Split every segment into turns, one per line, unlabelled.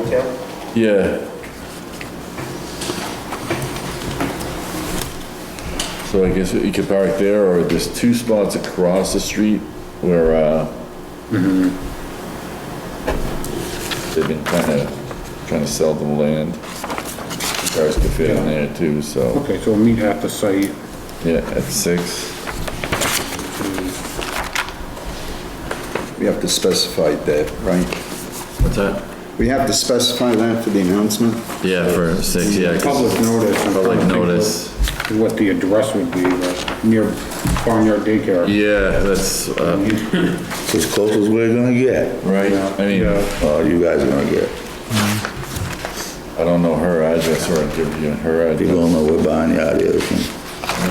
okay.
Yeah. So I guess you could park there, or there's two spots across the street where, uh, Mm-hmm. they've been kind of, trying to sell them land. Cars could fit in there too, so,
Okay, so we'll meet at the site.
yeah, at six.
We have to specify that, right?
What's that?
We have to specify that for the announcement?
Yeah, for six, yeah, 'cause
Public notice. I'm
public
trying to think
notice.
what- What the address would be, like, near Barnyard Daycare.
Yeah, that's, uh,
It's as close as we're gonna get,
right, I mean,
Yeah.
uh, you guys are gonna get.
I don't know her address, or I'd give you her
You
address.
don't know where Barnyard is, and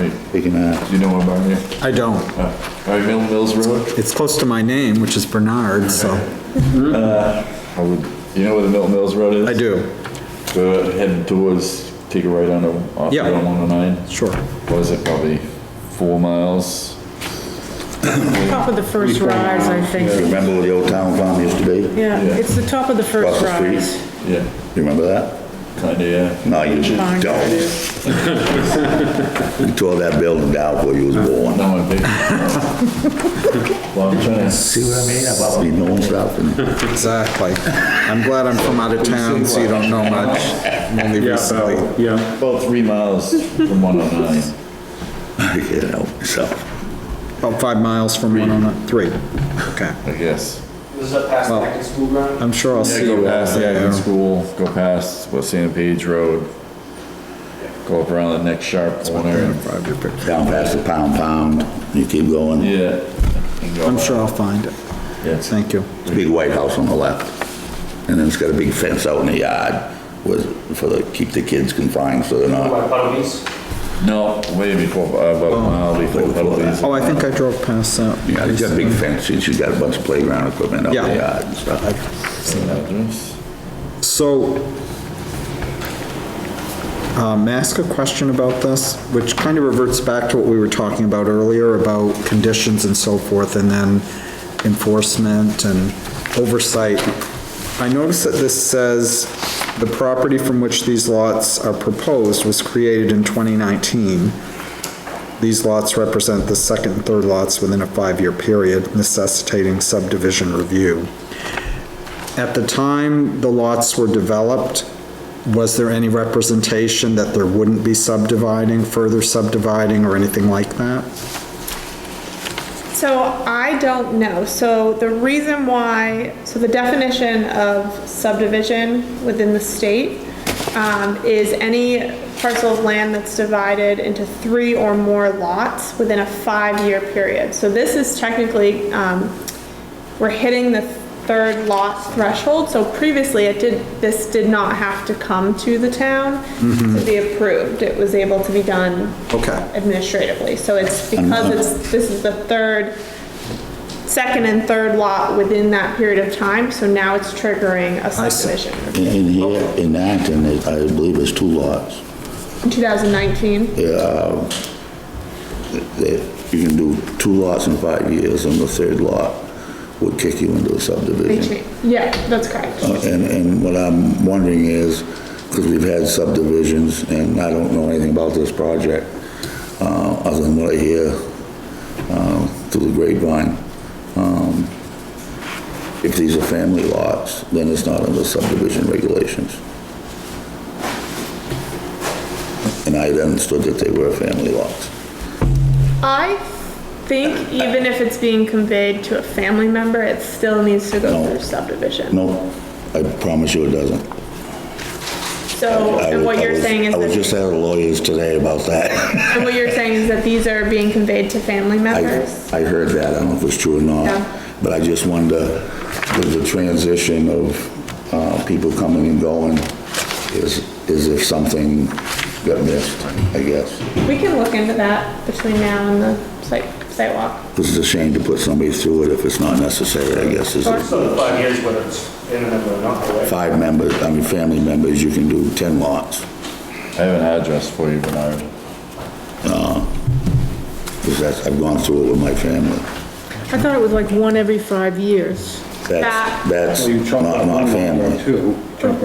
Right.
we can ask.
Do you know what about here?
I don't.
All right, Mill Mills Road?
It's close to my name, which is Bernard, so.
I would, you know where the Milton Mills Road is?
I do,
Go head towards, take a right onto, off
Yeah.
Route 109.
sure.
What is it, probably four miles?
Top of the first
Before-
rise, I think.
Remember where the old town farm used to be? You
Yeah,
Yeah.
it's the top of the
Across
first
the street.
rise.
Yeah,
remember that?
kinda, yeah.
No, you just
Barnyard
don't.
is.
You tore that building down before you was born.
No, I'm big. Well, I'm trying to,
See what I mean? About me knowing stuff and
Exactly. I'm glad I'm from out of town, so you don't know much. I'm Only
Yeah,
recently.
about- yeah,
about three miles from 109.
I can't help myself.
About five miles from one on, a- three. Okay.
I guess.
This is up past
Well-
Packard School Ground.
I'm sure I'll
Yeah,
see you.
go past
Yeah,
Acton
yeah.
School, go past West Santa Page Road, go up around the next sharp corner.
Down past the pound pound, you keep going.
Yeah. and go
I'm
up.
sure I'll find it.
Yeah.
Thank you.
It's a big white house on the left. And then it's got a big fence out in the yard with, for the, keep the kids confined so they're not.
By Puddlebee's.
No, way before, uh, about a mile before Puddle Bees.
Oh, I think I drove past that.
Yeah, it's got a big fence, she's got a bunch of playground equipment out in the
Yeah.
yard and stuff.
Address?
So, um, may I ask a question about this, which kind of reverts back to what we were talking about earlier about conditions and so forth, and then enforcement and oversight. I noticed that this says, "The property from which these lots are proposed was created in 2019. These lots represent the second and third lots within a five-year period necessitating subdivision review." At the time the lots were developed, was there any representation that there wouldn't be subdividing, further subdividing, or anything like that?
So I don't know. So the reason why, so the definition of subdivision within the state um, is any parcel of land that's divided into three or more lots within a five-year period. So this is technically, um, we're hitting the third lot threshold. So previously, it did, this did not have to come to the town to be approved. It was able to be done
Okay.
administratively, so it's because it's, this is the third, second and third lot within that period of time, so now it's triggering a
see.
subdivision.
In in here, in Acton, it- I believe it's two lots.
In 2019,
That You can do two lots in five years and the third lot would kick you into a
they
subdivision.
changed, yeah, that's correct.
Uh, And, and what I'm wondering is, because we've had subdivisions, and I don't know anything about this project, uh, other than what I hear, uh, through the grapevine. Um, If these are family lots, then it's not under subdivision regulations. And I had understood that they were family lots.
I think even if it's being conveyed to a family member, it still needs to go
No.
through subdivision.
No, I promise you it doesn't.
So,
I
and
was-
what
I
you're
was-
saying is
I was just
that,
at a lawyer's today about that.
and what you're saying is that these are being conveyed to family
I,
members?
I heard that, I don't know if it's true or
Yeah.
not, but I just wonder, with the transition of, uh, people coming and going, is, is if something got missed, I guess.
We can look into that between now and the site, site walk.
This is a shame to put somebody through it if it's not necessary, I guess, is it?
So the five years, whether it's in a member or not, right?
Five members, I mean, family members, you can do 10 lots.
I have an address for you, Bernard.
Because that's, I've gone through it with my family.
I thought it was like one every five years.
That's,
That-
that's
so you chop
not,
up
not
one lot or
family.
two, chop